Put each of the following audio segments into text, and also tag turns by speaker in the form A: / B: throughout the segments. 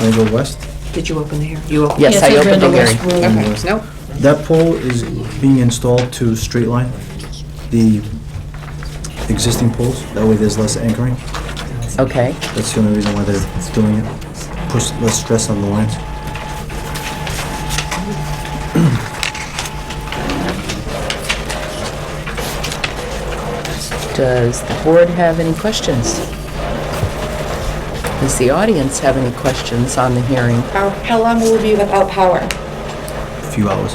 A: I go west.
B: Did you open the hearing? You opened?
C: Yes,
D: Yes,
C: I
D: I
C: opened the
D: opened the
C: hearing.
D: West Room.
B: Okay, no,
A: That pole is being installed to straight line the existing poles. That way there's less anchoring.
C: Okay,
A: That's the only reason why they're doing it. Push less stress on the lines.
C: does the board have any questions? Does the audience have any questions on the hearing?
E: How, how long will we be without power?
A: A few hours.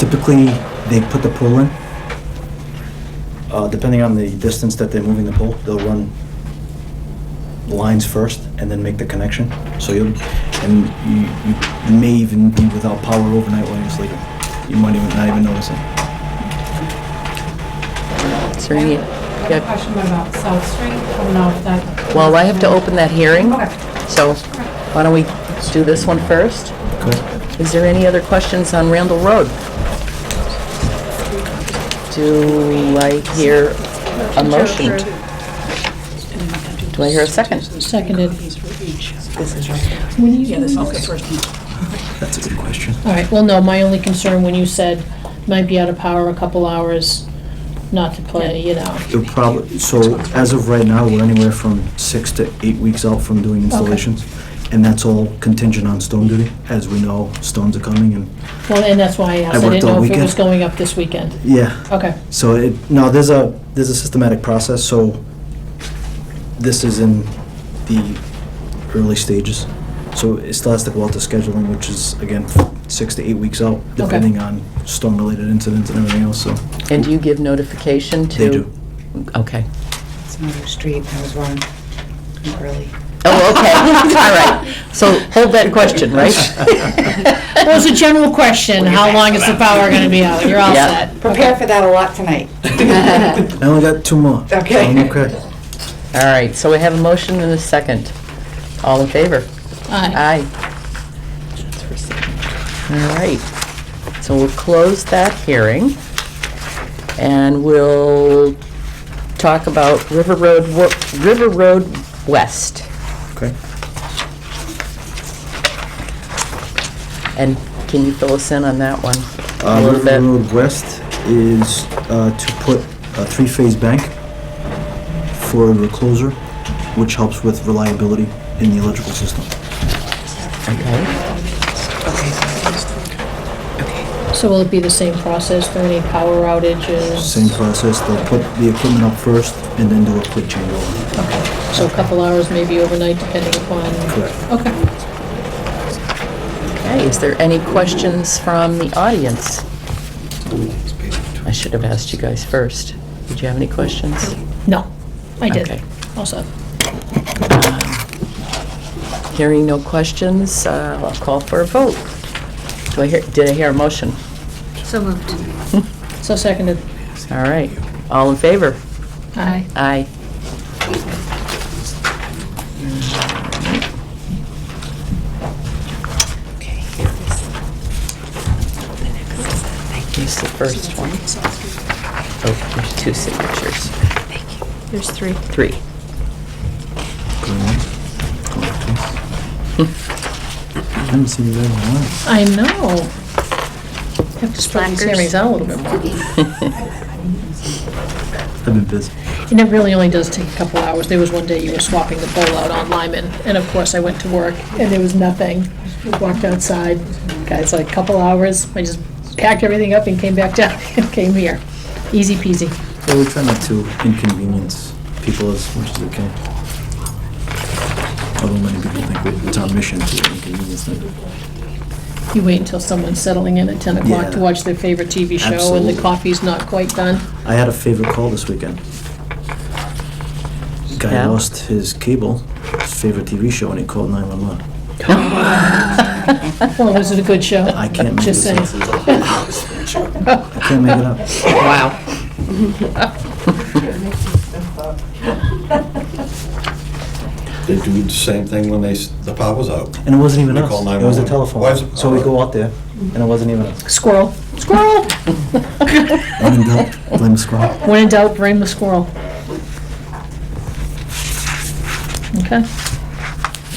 A: Typically, they put the pole in. Uh, depending on the distance that they're moving the pole, they'll run lines first and then make the connection. So you'll, and you, you may even be without power overnight while you're sleeping. You might even not even notice it.
C: Is there any?
F: I have a
C: yeah,
F: question about South Street. I don't know if that...
C: Well, I have to open that hearing,
F: Okay.
C: so why don't we do this one first? Is there any other questions on Randall Road? Do I hear a motion? Do I hear a second?
D: Seconded.
B: this is right.
D: When you, all
A: That's a good question.
D: right, well, no, my only concern when you said might be out of power a couple hours, not to play, you know.
A: It'll probably, so as of right now, we're anywhere from six to eight weeks out from doing installations. And that's all contingent on stone duty. As we know, stones are coming and,
D: Well, and that's why I asked. I
A: worked
D: didn't
A: all
D: know if it
A: weekend.
D: was going up this weekend.
A: yeah.
D: Okay,
A: So it, no, there's a, there's a systematic process, so this is in the early stages. So it still has to go out to scheduling, which is, again, six to eight weeks out, depending on storm-related incidents and everything else, so.
C: And do you give notification to?
A: They do.
C: Okay.
B: It's another street, I was wrong, I'm early.
C: Oh, okay, all right. So hold that question, right?
D: well, it's a general question, how long is the power gonna be out? You're all
C: Yeah.
D: set.
E: Prepare for that a lot tonight.
A: I only got two more. so
E: Okay.
A: I'm Okay.
C: All right, so we have a motion and a second. All in favor?
D: Aye.
C: Aye. That's for signature. All right, so we'll close that hearing, and we'll talk about River Road, Wo- River Road West.
A: Okay.
C: And can you fill us in on that one? a
A: Uh,
C: little
A: River
C: bit?
A: Road West is uh, to put a three-phase bank for a recloser, which helps with reliability in the electrical system.
C: Okay,
D: So will it be the same process for any power outages?
A: Same process, they'll put the equipment up first and then do a quick changeover.
D: So a couple hours, maybe overnight, depending upon,
A: Correct.
D: okay.
C: okay, is there any questions from the audience? I should have asked you guys first. Did you have any questions?
D: No, I
C: Okay.
D: did. Also,
C: Um, Hearing no questions, uh, I'll call for a vote. Do I hear, did I hear a motion?
D: so seconded.
C: All right, all in favor?
D: Aye.
C: Aye. Here's the first one. Oh, there's two signatures.
G: There's three.
C: Three.
A: Green one, black two. Hmm. Haven't seen that in a while.
D: I know. Have to spread these
G: Slackers.
D: hearings out a little bit more.
A: I've been busy.
D: And it really only does take a couple hours. There was one day you were swapping the bowl out on Lyman, and of course, I went to work, and there was nothing. Walked outside, guys, like, couple hours, I just packed everything up and came back down and came here. Easy peasy.
A: Yeah, we try not to inconvenience people as much as we can. Although many people think we- it's our mission to inconvenience them.
D: You wait until someone's settling in at 10 o'clock to
A: Yeah.
D: watch their favorite TV show, and
A: Absolutely.
D: the coffee's not quite done.
A: I had a favorite call this weekend. Guy
C: Yeah?
A: lost his cable, his favorite TV show, and he called 911.
D: Well, was it a good show?
A: I can't make
D: Just
A: this
D: saying.
A: up. I can't make it up.
C: Wow.
H: They do the same thing when they, s- the power's out.
A: And it wasn't even
H: We
A: us.
H: call
A: It was a
H: 911. Why is
A: telephone.
H: it-
A: So we go out there, and it wasn't even us.
D: Squirrel. Squirrel!
A: When in doubt, blame the squad.
D: When in doubt, blame the squirrel. Okay.